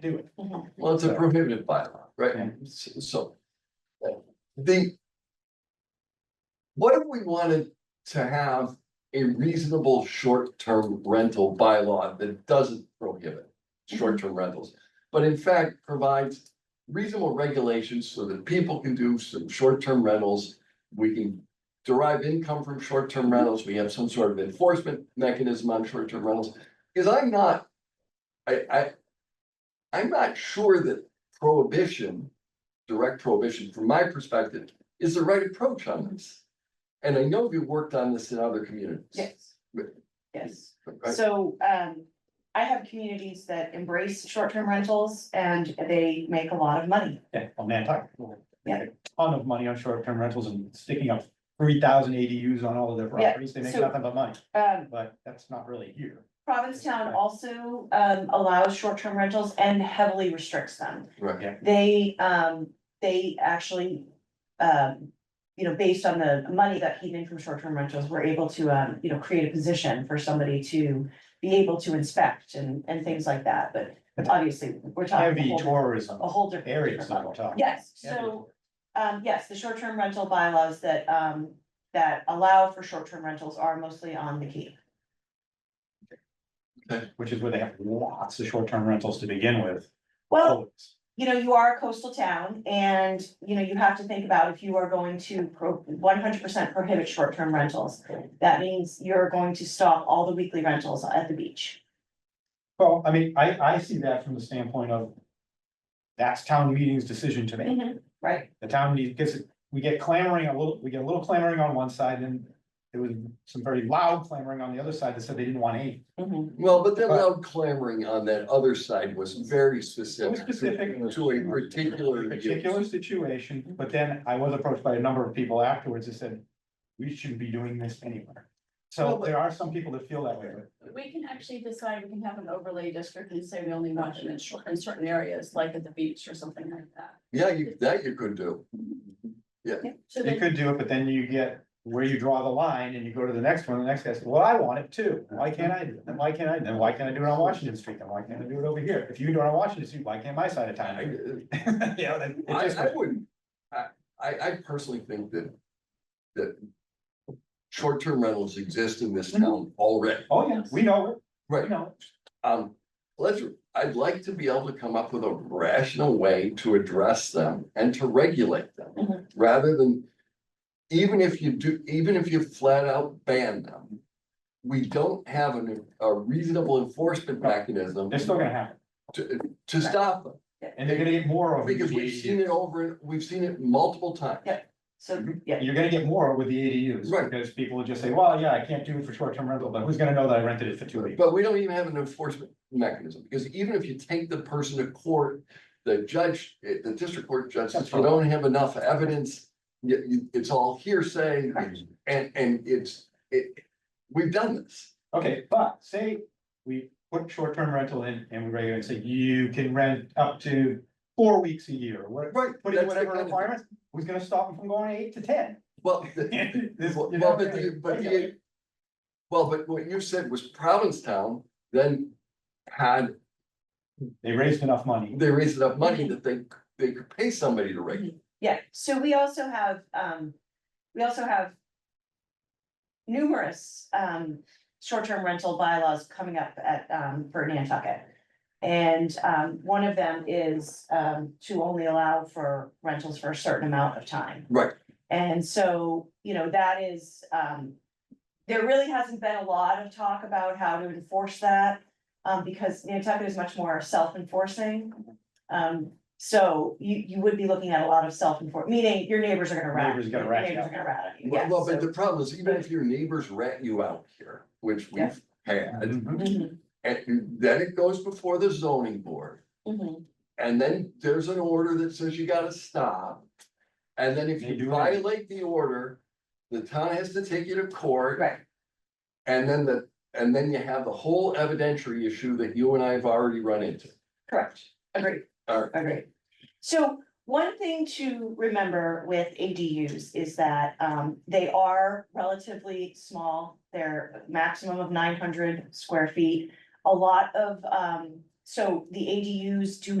do it. Mm-hmm. Well, it's a prohibitive bylaw, right? Yeah. So. uh, The. What if we wanted to have a reasonable short-term rental bylaw that doesn't prohibit short-term rentals? But in fact provides reasonable regulations so that people can do some short-term rentals. We can derive income from short-term rentals. We have some sort of enforcement mechanism on short-term rentals. Cause I'm not. I, I, I'm not sure that prohibition, direct prohibition, from my perspective, is the right approach on this. And I know you worked on this in other communities. Yes. Right. Yes, Right? so um I have communities that embrace short-term rentals and they make a lot of money. Yeah, on Nantucket. Yeah. Ton of money on short-term rentals and sticking up three thousand ADUs on all of their Yeah, properties, they make so- nothing but money, Um but that's not really here. Provincetown also um allows short-term rentals and heavily restricts them. Right. They, um, they actually, um, you know, based on the money that came in from short-term rentals, were able to, um, you know, create a position for somebody to be able to inspect and, and things like that, but obviously, we're talking Heavy a whole, tourism a whole different. areas different that level. we're talking. Yes, Heavy Oh, so, tourism. um, yes, the short-term rental bylaws that, um, that allow for short-term rentals are mostly on the Cape. Which is where they have lots of short-term rentals to begin with. Well, Always. you know, you are a coastal town and, you know, you have to think about if you are going to pro, one hundred percent prohibit short-term rentals. That means you're going to stop all the weekly rentals at the beach. Well, I mean, I, I see that from the standpoint of that's town meeting's decision to make. Right, The town needs, gets, we get clamoring a little, we get a little clamoring on one side and there was some very loud clamoring on the other side that said they didn't want any. Mhm. Well, but that loud clamoring on that other side was very It specific. was specific. to- To a particular. use. Particular situation, but then I was approached by a number of people afterwards that said, we shouldn't be doing this anywhere. Well, So but- there are some people that feel that way, but We can actually decide, we can have an overlay district and say we only want them in short, in certain areas, like at the beach or something like that. Yeah, you, that you could do. So they then, could do it, but then you get where you draw the line and you go to the next one, the next guy says, well, I want it too. Why can't I do it? Then why can't I? Then why can't I do it on Washington Street? Then why can't I do it over here? If you do it on Washington Street, why can't my side of town? I, do it? You know, then it I, just- I wouldn't, I, I, I personally think that, that short-term rentals exist in Mm-hmm. this town already. Oh, yeah, we know, it. we Right. know. it. Um, let's, I'd like to be able to come up with a rational way to address them and to regulate them, Mhm. Mm-hmm. rather than. Even if you do, even if you flat out ban them, we don't have an- a reasonable enforcement mechanism They're still gonna happen. to, to stop them. And they're gonna get more of. the Because we've seen it ADUs. over, we've seen it multiple times. Yeah. so, Mm-hmm. yeah, You're gonna get more with the ADUs. Right. Because people will just say, well, yeah, I can't do it for short-term rental, but who's gonna know that I rented it for two weeks? But we don't even have an enforcement mechanism, because even if you take the person to court, the judge, eh, the district court judge says, you don't have enough evidence. You, you- it's all hearsay, and, and it's, it, we've done this. Okay, but say we put short-term rental in and we regulate, and say you can rent up to four weeks a year, or whatever. Right. Put in whatever requirements, who's gonna stop them from going eight to ten? Well, the- This- well, you well, know, but the, but regulate. the, well, but what you said was Provincetown then had, They raised enough money. they raised enough money that they, they could pay somebody to regulate. yeah, so we also have, um, we also have. Numerous, um, short-term rental bylaws coming up at, um, for Nantucket. And, um, one of them is, um, to only allow for rentals for a certain amount of time. Right, And so, you know, that is, um, there really hasn't been a lot of talk about how to enforce that. Um, because Nantucket is much more self-enforcing. Um, so you, you would be looking at a lot of self-enfor, meaning your neighbors are gonna rat. Neighbors gonna rat you Neighbors out. are gonna rat on you, well, yeah, well, but so- the problem is, even if your neighbors rat you out here, which Yeah. we've had. Mhm. Mhm, And then it goes before the zoning board, mhm. and then there's an order that says you gotta stop. And then if They do you it. violate the order, the town has to take you to court, Right, and then the, and then you have the whole evidentiary issue that you and I have already run into. correct, agreed. All right. Agreed. So one thing to remember with ADUs is that um they are relatively small. They're a maximum of nine hundred square feet. A lot of um so the ADUs do